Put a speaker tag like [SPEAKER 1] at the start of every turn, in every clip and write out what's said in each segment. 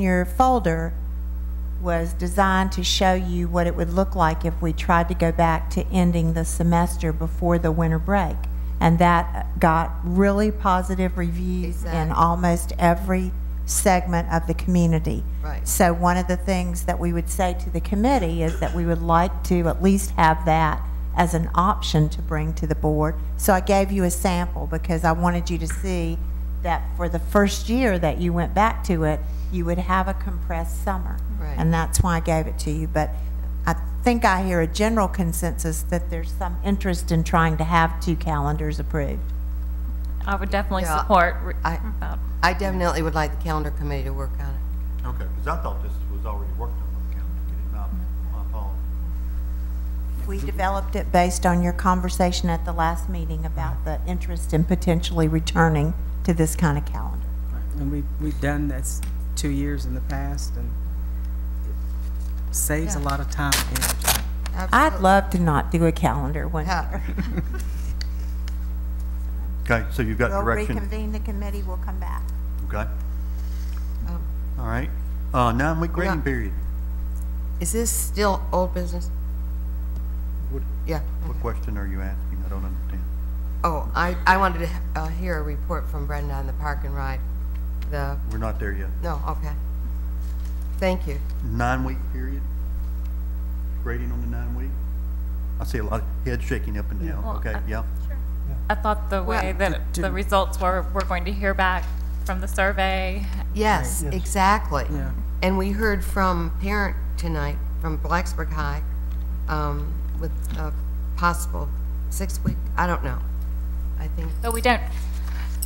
[SPEAKER 1] your folder was designed to show you what it would look like if we tried to go back to ending the semester before the winter break. And that got really positive reviews in
[SPEAKER 2] Exactly.
[SPEAKER 1] almost every segment of the community.
[SPEAKER 2] Right.
[SPEAKER 1] So one of the things that we would say to the committee is that we would like to at least have that as an option to bring to the board. So I gave you a sample because I wanted you to see that for the first year that you went back to it, you would have a compressed summer.
[SPEAKER 2] Right.
[SPEAKER 1] And that's why I gave it to you. But I think I hear a general consensus that there's some interest in trying to have two calendars approved.
[SPEAKER 3] I would definitely
[SPEAKER 2] Yeah,
[SPEAKER 3] support. re-
[SPEAKER 2] I-
[SPEAKER 3] about-
[SPEAKER 2] I definitely would like the calendar committee to work on it.
[SPEAKER 4] Okay, because I thought this was already worked on by the county, did it not? My fault.
[SPEAKER 1] We developed it based on your conversation at the last meeting about the interest in potentially returning to this kind of calendar.
[SPEAKER 5] And we, we've done this two years in the past and it saves a
[SPEAKER 2] Yeah.
[SPEAKER 5] lot of time and energy.
[SPEAKER 1] I'd love to not do a calendar one
[SPEAKER 2] Yeah.
[SPEAKER 1] year.
[SPEAKER 4] Okay, so you've got
[SPEAKER 1] We'll
[SPEAKER 4] direction,
[SPEAKER 1] reconvene the committee, we'll come back.
[SPEAKER 4] okay?
[SPEAKER 2] Um,
[SPEAKER 4] All right. Uh, nine-week grading
[SPEAKER 2] not-
[SPEAKER 4] period,
[SPEAKER 2] Is this still old business?
[SPEAKER 4] What-
[SPEAKER 2] Yeah.
[SPEAKER 4] what question are you asking? I don't understand.
[SPEAKER 2] Oh, I, I wanted to uh, hear a report from Brenda on the park and ride. The,
[SPEAKER 4] We're not there yet.
[SPEAKER 2] no, okay. Thank you.
[SPEAKER 4] Nine-week period? Grading on the nine-week? I see a lot of head shaking up and down,
[SPEAKER 3] Well,
[SPEAKER 4] okay,
[SPEAKER 1] uh,
[SPEAKER 3] I-
[SPEAKER 4] yeah.
[SPEAKER 3] I thought the way that
[SPEAKER 5] d-
[SPEAKER 3] the
[SPEAKER 5] didn't-
[SPEAKER 3] results were, we're going to hear back from the survey.
[SPEAKER 2] Yes, exactly.
[SPEAKER 5] Yeah.
[SPEAKER 2] And we heard from parent tonight, from Blacksburg High, um, with a possible six-week, I don't know. I think,
[SPEAKER 3] But we don't,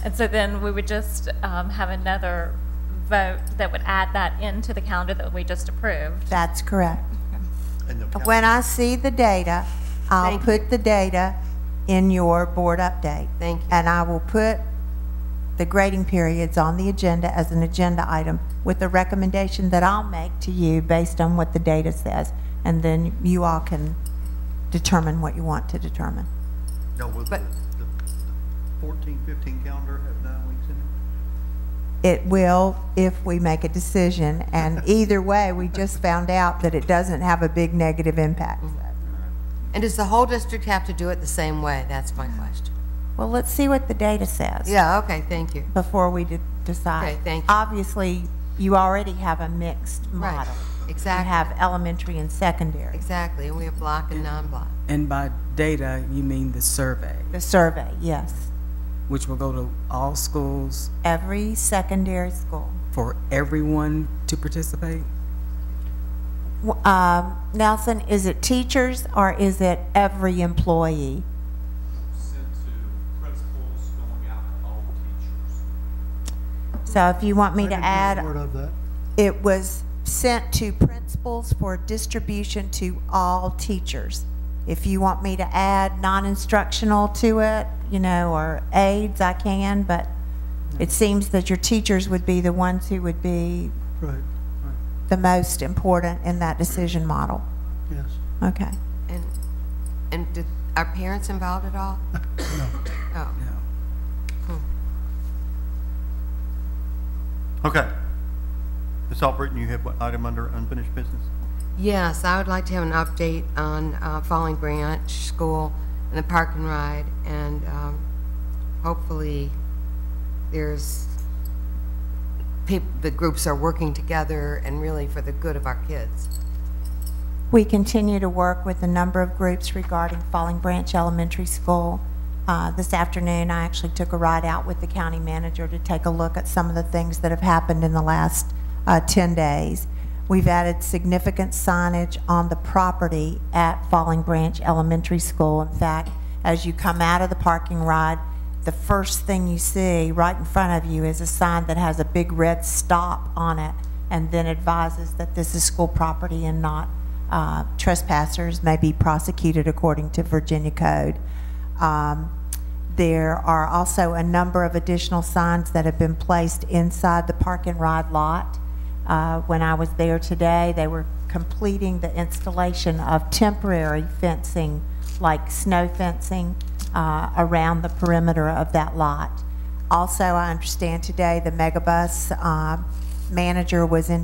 [SPEAKER 3] and so then we would just um, have another vote that would add that into the calendar that we just approved.
[SPEAKER 1] That's correct.
[SPEAKER 4] And the coun-
[SPEAKER 1] When I see the data, I'll
[SPEAKER 2] Thank you.
[SPEAKER 1] put the data in your board update.
[SPEAKER 2] Thank you.
[SPEAKER 1] And I will put the grading periods on the agenda as an agenda item with the recommendation that I'll make to you based on what the data says. And then you all can determine what you want to determine.
[SPEAKER 4] No, will the,
[SPEAKER 2] But-
[SPEAKER 4] the fourteen, fifteen calendar have nine weeks in it?
[SPEAKER 1] It will if we make a decision, and either way, we just found out that it doesn't have a big negative impact.
[SPEAKER 2] Mm-hmm. and does the whole district have to do it the same way? That's my question.
[SPEAKER 1] Well, let's see what the data says.
[SPEAKER 2] Yeah, okay, thank you.
[SPEAKER 1] Before we de- decide.
[SPEAKER 2] Okay, thank you.
[SPEAKER 1] Obviously, you already have a mixed
[SPEAKER 2] Right,
[SPEAKER 1] model. You
[SPEAKER 2] exactly,
[SPEAKER 1] have elementary and secondary,
[SPEAKER 2] exactly. And we have block and non-block.
[SPEAKER 5] And by data, you mean the survey,
[SPEAKER 1] the survey, yes.
[SPEAKER 5] which will go to all schools
[SPEAKER 1] Every secondary school.
[SPEAKER 5] for everyone to participate?
[SPEAKER 1] W- um, Nelson, is it teachers or is it every employee?
[SPEAKER 6] sent to principals going out to all teachers.
[SPEAKER 1] So if you want me to add
[SPEAKER 7] Word of that.
[SPEAKER 1] It was sent to principals for distribution to all teachers. If you want me to add non-instructional to it, you know, or aides, I can, but it seems that your teachers would be the ones who would be
[SPEAKER 7] Right,
[SPEAKER 1] the most important in that decision model.
[SPEAKER 7] yes.
[SPEAKER 1] Okay.
[SPEAKER 2] And, and did, are parents involved at all? Oh. No.
[SPEAKER 5] No.
[SPEAKER 4] Okay. Ms. Albritton, you have what item under unfinished business?
[SPEAKER 2] Oh, yes, I would like to have an update on uh, Falling Branch School and the park and ride, and um, hopefully there's, peop the groups are working together and really for the good of our kids.
[SPEAKER 1] We continue to work with a number of groups regarding Falling Branch Elementary School. Uh, This afternoon, I actually took a ride out with the county manager to take a look at some of the things that have happened in the last uh, 10 days. We've added significant signage on the property at Falling Branch Elementary School. In fact, as you come out of the parking ride, the first thing you see right in front of you is a sign that has a big red stop on it and then advises that this is school property and not uh, trespassers may be prosecuted according to Virginia code. Um, There are also a number of additional signs that have been placed inside the park and ride lot. Uh, When I was there today, they were completing the installation of temporary fencing, like snow fencing, uh, around the perimeter of that lot. Also, I understand today the megabus uh, manager was in